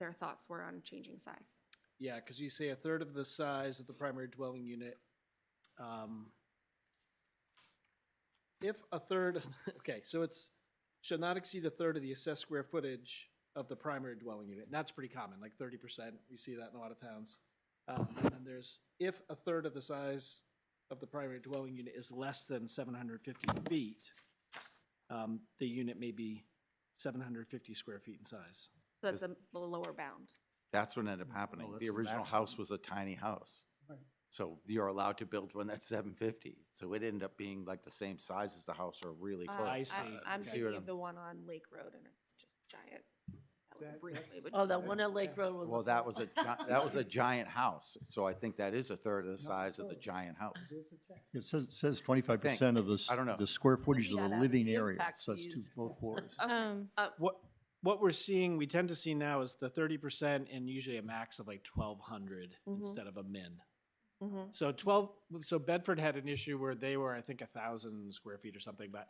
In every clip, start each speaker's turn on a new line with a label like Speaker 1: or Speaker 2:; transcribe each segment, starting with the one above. Speaker 1: their thoughts were on changing size.
Speaker 2: Yeah, because you say a third of the size of the primary dwelling unit. um, If a third, of okay, so it's, shall not exceed a third of the assessed square footage of the primary dwelling unit. And that's pretty common, like thirty percent. We see that in a lot of towns. Um, And then there's, if a third of the size of the primary dwelling unit is less than seven hundred fifty feet, um, the unit may be seven hundred fifty square feet in size.
Speaker 1: So that's the the lower bound.
Speaker 3: That's what ended up happening.
Speaker 4: that's
Speaker 3: The
Speaker 4: the
Speaker 3: original house was a tiny house.
Speaker 4: Right.
Speaker 3: So you're allowed to build one that's seven fifty. So it ended up being like the same size as the house or really
Speaker 1: Uh,
Speaker 3: close.
Speaker 2: I see.
Speaker 1: I'm
Speaker 3: See
Speaker 1: thinking
Speaker 3: what
Speaker 1: of
Speaker 3: I'm-
Speaker 1: the one on Lake Road and it's just giant. That was
Speaker 4: That-
Speaker 1: briefly, but-
Speaker 5: Oh, that one at Lake Road was.
Speaker 3: Well, that was a, gi- that was a giant house. So I think that is a third of the
Speaker 4: It's not
Speaker 3: size of the
Speaker 4: close.
Speaker 3: giant house.
Speaker 6: It says, says twenty-five percent of the, s-
Speaker 3: I don't know.
Speaker 6: the square footage
Speaker 5: Maybe
Speaker 6: of the
Speaker 5: that
Speaker 6: living
Speaker 5: impact
Speaker 6: area, so that's two,
Speaker 5: fees.
Speaker 6: both floors.
Speaker 5: Um,
Speaker 2: What, what we're seeing, we tend to see now is the thirty percent and usually a max of like twelve hundred
Speaker 1: Mhm.
Speaker 2: instead of a min.
Speaker 1: Mhm.
Speaker 2: So twelve, so Bedford had an issue where they were, I think, a thousand square feet or something, but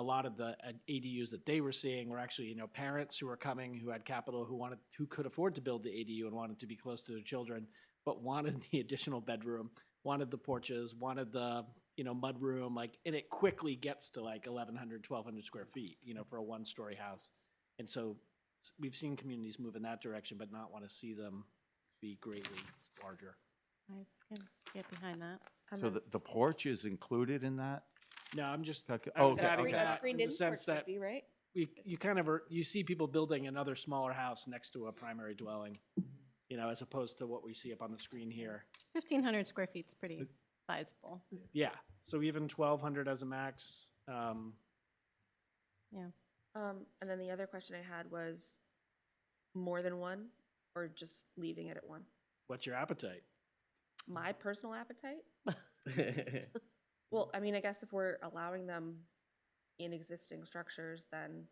Speaker 2: a lot of the uh, ADUs that they were seeing were actually, you know, parents who were coming, who had capital, who wanted, who could afford to build the ADU and wanted to be close to their children, but wanted the additional bedroom, wanted the porches, wanted the, you know, mudroom, like, and it quickly gets to like 1,100, 1,200 square feet, you know, for a one-story house. And so s- we've seen communities move in that direction, but not want to see them be greatly larger.
Speaker 5: I can get behind that.
Speaker 1: And
Speaker 3: So
Speaker 1: then-
Speaker 3: the, the porch is included in that?
Speaker 2: No, I'm just,
Speaker 3: Calcu-
Speaker 2: I was
Speaker 3: Oh, okay,
Speaker 2: adding
Speaker 3: okay.
Speaker 1: A
Speaker 2: that in
Speaker 1: screened-in
Speaker 2: the
Speaker 1: porch
Speaker 2: sense
Speaker 1: would
Speaker 2: that
Speaker 1: be, Right?
Speaker 2: we, you kind of are, you see people building another smaller house next to a primary dwelling, you know, as opposed to what we see up on the screen here.
Speaker 5: Fifteen hundred square feet's pretty sizable.
Speaker 2: Yeah, so even 1,200 as a max, um,
Speaker 1: Um, and then the other question I had was more than one or just leaving it at one?
Speaker 2: what's your appetite?
Speaker 1: My personal appetite? Well, I mean, I guess if we're allowing them in existing structures, then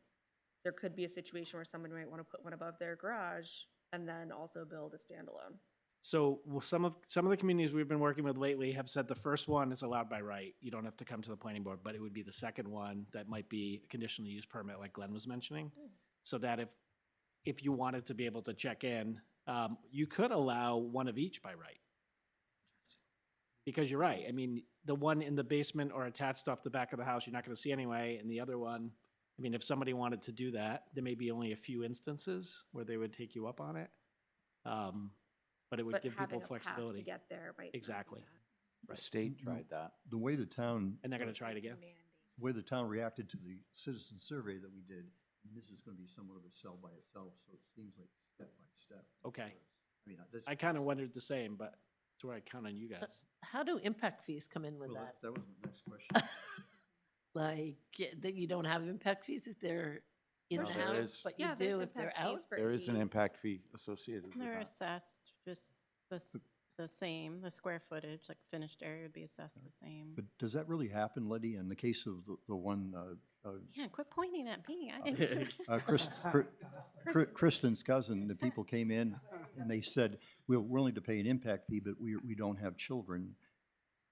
Speaker 1: there could be a situation where someone might want to put one above their garage and then also build a standalone.
Speaker 2: So well, some of some of the communities we've been working with lately have said the first one is allowed by right. You don't have to come to the planning board, but it would be the second one that might be a conditional use permit, like Glenn was mentioning. So that if if you wanted to be able to check in, um, you could allow one of each by right. Because you're right. I mean, the one in the basement or attached off the back of the house, you're not going to see anyway, and the other one. I mean, if somebody wanted to do that, there may be only a few instances where they would take you up on it. Um, but it would
Speaker 1: But
Speaker 2: give
Speaker 1: having
Speaker 2: people
Speaker 1: a path to
Speaker 2: flexibility.
Speaker 1: get there might. not be
Speaker 2: Exactly.
Speaker 1: that
Speaker 3: The state tried that.
Speaker 6: The way the town,
Speaker 2: And they're gonna try it again.
Speaker 1: demanding.
Speaker 6: way the town reacted to the citizen survey that we did, and this is gonna be somewhat of a cell by itself, so it seems like step by step.
Speaker 2: Okay.
Speaker 6: I mean, that's.
Speaker 2: I kind of wondered the same, but it's where I count on you guys.
Speaker 7: How do impact fees come in with
Speaker 6: well,
Speaker 7: that?
Speaker 6: That was my next question.
Speaker 7: Like, y- that you don't have impact fees if they're in
Speaker 3: No,
Speaker 7: the
Speaker 3: there
Speaker 7: house,
Speaker 3: is-
Speaker 7: but you
Speaker 1: Yeah, there's
Speaker 7: do if they're
Speaker 1: impact
Speaker 7: out?
Speaker 1: fees for
Speaker 3: There is an
Speaker 1: ADUs.
Speaker 3: impact fee associated with
Speaker 5: They're
Speaker 3: that.
Speaker 5: assessed just the, s- the same, the square footage, like finished area would be assessed the same.
Speaker 6: But does that really happen, Letty, in the case of the, the one, uh, uh,
Speaker 5: Yeah, quit pointing at me. I didn't.
Speaker 6: Uh, Chris, Cri- Cri- Kristen's cousin, the people came in and they said, we're willing to pay an impact fee, but we, we don't have children.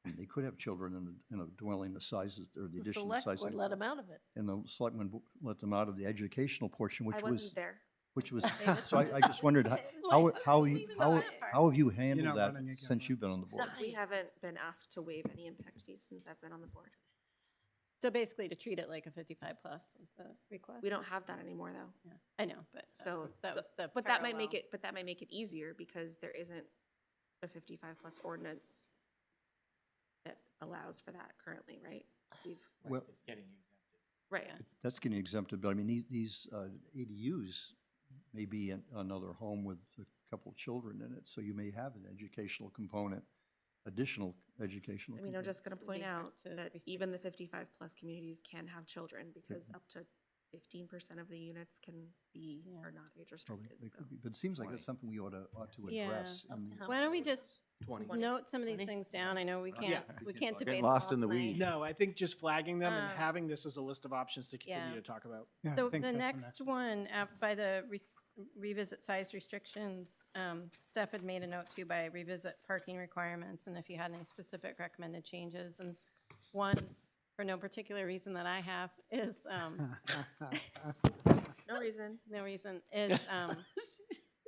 Speaker 6: And they could have children in a, in a dwelling the sizes, or the
Speaker 7: The
Speaker 6: additional
Speaker 7: select
Speaker 6: size.
Speaker 7: would let them out of it.
Speaker 6: And the selectmen w- let them out of the educational portion,
Speaker 1: I
Speaker 6: which was,
Speaker 1: wasn't there.
Speaker 6: which was, so I, I just wondered, how, how, how, you- how, how have you handled
Speaker 4: not
Speaker 6: that
Speaker 4: running again,
Speaker 6: since
Speaker 4: right?
Speaker 6: you've been on the board?
Speaker 1: We
Speaker 7: Right.
Speaker 1: haven't been asked to waive any impact fees since I've been on the board.
Speaker 5: So basically to treat it like a fifty-five plus is the request.
Speaker 1: We don't have that anymore though.
Speaker 5: Yeah, I know, but
Speaker 1: So-
Speaker 5: so that
Speaker 1: so-
Speaker 5: was the.
Speaker 1: But that might make
Speaker 5: parallel.
Speaker 1: it, but that might make it easier because there isn't a fifty-five plus ordinance that allows for that currently, right? We've,
Speaker 6: Well,
Speaker 1: right,
Speaker 5: Yeah.
Speaker 6: that's getting exempted, but I mean, these, these uh, ADUs may be in another home with a couple of children in it, so you may have an educational component, additional educational.
Speaker 1: I mean, I'm
Speaker 6: component.
Speaker 1: just gonna point
Speaker 5: be hard
Speaker 1: out
Speaker 5: to
Speaker 1: that
Speaker 5: restrict.
Speaker 1: even the fifty-five plus communities can have children because
Speaker 6: Mm-hmm.
Speaker 1: up to fifteen percent of the units can be,
Speaker 5: Yeah.
Speaker 1: are not age
Speaker 6: Probably,
Speaker 1: restricted,
Speaker 6: they
Speaker 1: so.
Speaker 6: could be, but it seems like
Speaker 3: Twenty.
Speaker 6: that's something we ought to, ought to
Speaker 5: Yeah.
Speaker 6: address. in the-
Speaker 7: Up to how
Speaker 5: Why don't we just
Speaker 3: Twenty.
Speaker 5: note some of these
Speaker 7: Funny.
Speaker 5: things down? I know we
Speaker 6: Yeah.
Speaker 5: can't,
Speaker 6: We
Speaker 5: we
Speaker 6: can't
Speaker 5: can't
Speaker 6: talk.
Speaker 5: debate.
Speaker 3: Getting
Speaker 5: them
Speaker 3: lost
Speaker 5: all
Speaker 3: in the
Speaker 5: tonight.
Speaker 3: weeds.
Speaker 2: No, I think just flagging them and
Speaker 1: Uh,
Speaker 5: Um,
Speaker 2: having this as a list of options to continue
Speaker 5: yeah.
Speaker 2: to talk about.
Speaker 4: Yeah, I
Speaker 5: So
Speaker 4: think
Speaker 5: the
Speaker 4: that's an
Speaker 5: next
Speaker 4: excellent-
Speaker 5: one, af- by the res- revisit size restrictions, um, Steph had made a note too by revisit parking requirements and if you had any specific recommended changes. And one, for no particular reason that I have, is, um,
Speaker 1: No reason.
Speaker 5: no reason, is um,